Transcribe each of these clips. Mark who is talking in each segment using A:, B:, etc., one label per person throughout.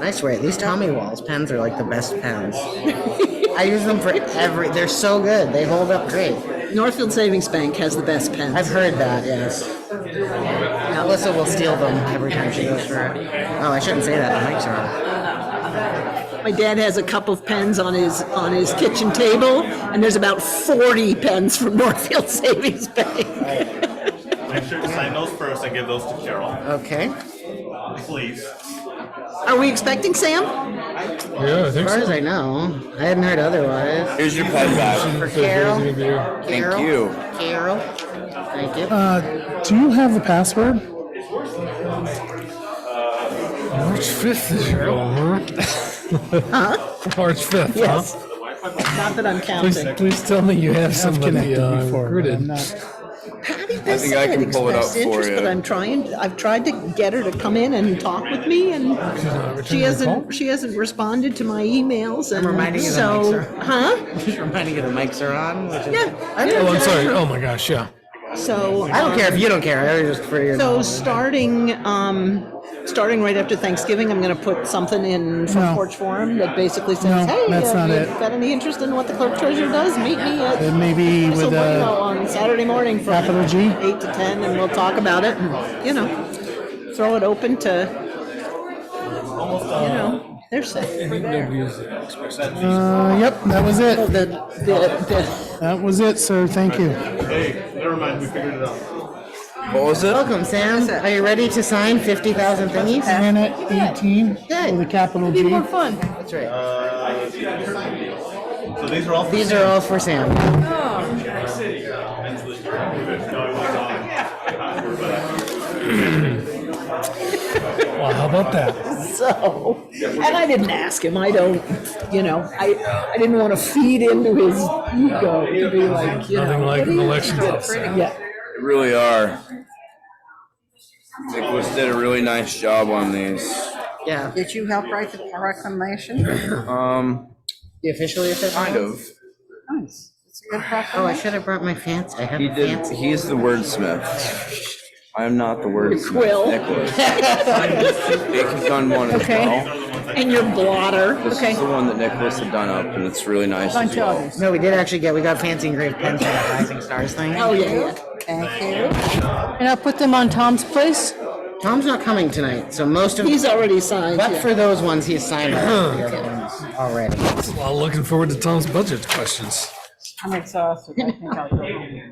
A: I swear, at least Tommy Wall's pens are like the best pens. I use them for every. They're so good. They hold up great.
B: Northfield Savings Bank has the best pens.
A: I've heard that. Yes. Alyssa will steal them every time she goes for it. Oh, I shouldn't say that. The mics are on.
B: My dad has a couple of pens on his on his kitchen table, and there's about 40 pens from Northfield Savings Bank.
C: Make sure to sign those first and give those to Carol,
A: Okay.
C: please.
B: Are we expecting Sam?
D: Yeah, I think
A: As far
D: so.
A: as I know, I hadn't heard otherwise.
E: Here's your pen back.
A: For Carol.
E: Thank
A: Carol,
E: you.
A: Carol. Thank you.
D: Uh, do you have the password? March 5th is your huh? March 5th,
B: Yes.
D: huh?
B: Not that I'm
D: Please,
B: counting.
D: please tell me you have somebody
F: connected
D: uh,
F: before, but
D: recruited.
F: I'm not-
B: Patty
E: I think I
B: Bissett
E: can pull it up
B: expressed
E: for
B: interest,
E: you.
B: but I'm trying. I've tried to get her to come in and talk with me, and she
D: returning her
B: hasn't.
D: call?
B: She hasn't responded to my emails, and
A: reminding you that
B: so,
A: makes her-
B: huh?
A: Just reminding you the mics are on. Which is,
B: Yeah.
D: Oh, I'm sorry. Oh my gosh, yeah.
B: So
A: I don't care if you don't care. I was just for your.
F: Oh,
B: So starting, um, starting right after Thanksgiving, I'm gonna put something in
F: No.
B: front porch forum that basically says,
F: No,
B: hey,
F: that's
B: have
F: not
B: you
F: it.
B: got any interest in what the clerk treasurer does? Meet me
F: It
B: at
F: may be
B: Castle
F: with
B: Bueno
F: a,
B: on Saturday morning from
F: Capital G?
B: eight to ten, and we'll talk about it, and, you know, throw it open to, you know, there's that.
F: uh, yep, that was
B: The,
D: Oh,
F: it.
B: the,
F: That was it, sir. Thank you.
C: Hey, never mind, we figured it out.
E: What was it?
A: Welcome, Sam. Are you ready to sign 50,000 thingies?
F: Planet 18
A: Good.
F: with a capital
B: the, be
F: G.
B: more fun.
A: That's right.
C: So these are all.
A: These are all for Sam.
D: Well, how about that?
B: So, and I didn't ask him. I don't, you know, I, I didn't want to feed into his ego to be like, you
D: Nothing
B: know,
D: like
B: what
D: an
B: do you-
D: election upset.
B: yeah.
E: They really are. Nicholas did a really nice job on these.
A: Yeah.
G: Did you help write the proclamation?
E: Um,
A: You officially accept
E: kind
A: those?
E: of.
G: Nice. It's a good
A: Oh, I
G: proclamation.
A: should have brought my fancy. I have
E: He
A: a
E: did.
A: fancy.
E: He's the wordsmith. I am not the wordsmith.
B: Quill.
E: Nicholas. Nick has done one as
B: Okay.
E: well.
B: And your blotter.
E: This is the one that Nicholas had done up, and it's really nice as
G: Bunch of
E: well.
G: others.
A: No, we did actually get, we got fancy engraved pens for that Rising Stars thing.
B: Oh, yeah, yeah.
G: Thank you. And I'll put them on Tom's place.
A: Tom's not coming tonight, so most of,
B: He's already signed.
A: but
B: yeah.
A: for those ones, he's signed all the other ones already.
D: Well, looking forward to Tom's budget questions.
G: I'm exhausted. I think I'll go home.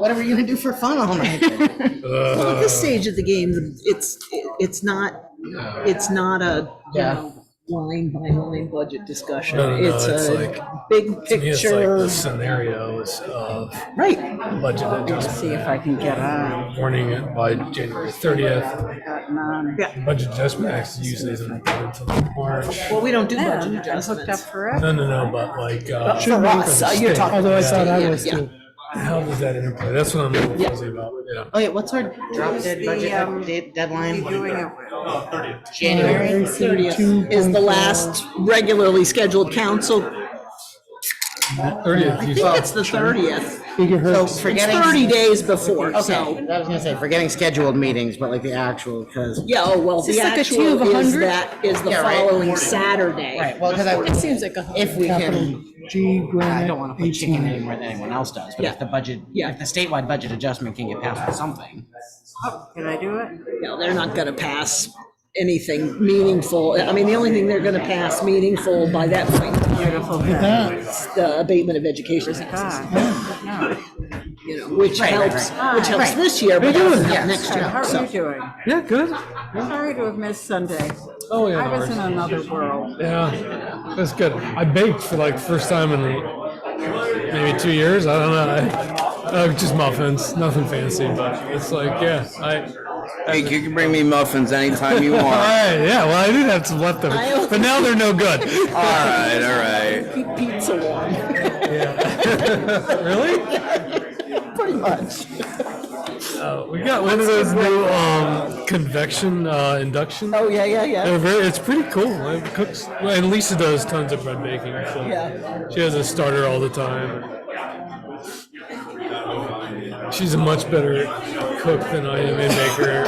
A: What are you gonna do for fun all night?
B: Well, at this stage of the game, it's, it's not, it's not a, you
A: Yeah.
B: know, line by line budget discussion.
D: No, no, no,
B: It's
D: it's
B: a
D: like-
B: big
D: To me, it's like the
B: picture,
D: scenarios of
B: right?
D: budget adjustment,
G: See if I can get on.
D: warning it by January 30th.
G: I've gotten on.
D: Budget adjustment actually usually isn't until March.
B: Well, we don't do
G: Yeah,
B: budget
G: I'm hooked up
B: adjustments.
G: forever.
D: No, no, no, but like, uh,
B: For us, uh, you're
D: state.
B: talking.
F: Although I thought I
B: Yeah,
F: was
B: yeah.
F: too.
D: how does that interplay? That's what I'm a little fuzzy about, yeah.
A: Oh, yeah, what's our drop dead
G: the,
A: budget
G: um,
A: update
G: You're doing
A: deadline?
G: it well.
A: January?
B: thirtieth is the last regularly scheduled council. I
D: 30th, you
B: think
D: said.
B: it's the thirtieth.
A: So
F: Gigahertz.
B: It's
A: forgetting.
B: thirty days before, so,
A: I was gonna say, forgetting scheduled meetings, but like the actual, because.
B: yeah, oh, well, the
G: this like a two
B: actual
G: of a
B: is
G: hundred?
B: that, is the
A: Yeah, right.
B: following Saturday.
A: Right, well, because I,
B: Seems like a.
A: if we
F: Capital
A: can,
F: G
A: I
F: granite
A: don't want to put chicken
F: 18.
A: any more than anyone else does, but if
B: Yeah.
A: the budget,
B: Yeah.
A: if the statewide budget adjustment can get passed with something.
G: Did I do it?
B: No, they're not gonna pass anything meaningful. I mean, the only thing they're gonna pass meaningful by that point in time
F: Yeah.
B: is the abatement of education taxes,
G: God. No.
B: you know, which
A: Right, right,
B: helps,
G: right.
B: which helps this year, but doesn't help next
G: How
B: year,
G: are you
B: so.
G: doing?
D: Yeah, good.
G: Sorry to have missed Sunday.
D: Oh, yeah.
G: I
D: no
G: was
D: worries.
G: in another world.
D: Yeah, that's good. I baked for like first time in maybe two years. I don't know. I, uh, just muffins, nothing fancy, but it's like yeah. I all
E: Hey, you can bring me muffins anytime you want.
D: right, yeah. Well, I did have some
B: I-
D: leftovers, but now they're no good.
E: all right, all right.
B: Keep pizza warm,
D: really?
B: pretty much.
D: Uh, we got one of those new um, convection uh, induction.
B: Oh, yeah, yeah, yeah.
D: They're very, it's pretty cool. It cooks, well, and Lisa does tons of bread baking. So
B: Yeah.
D: She has a starter all the time. She's a much better cook than I am and baker.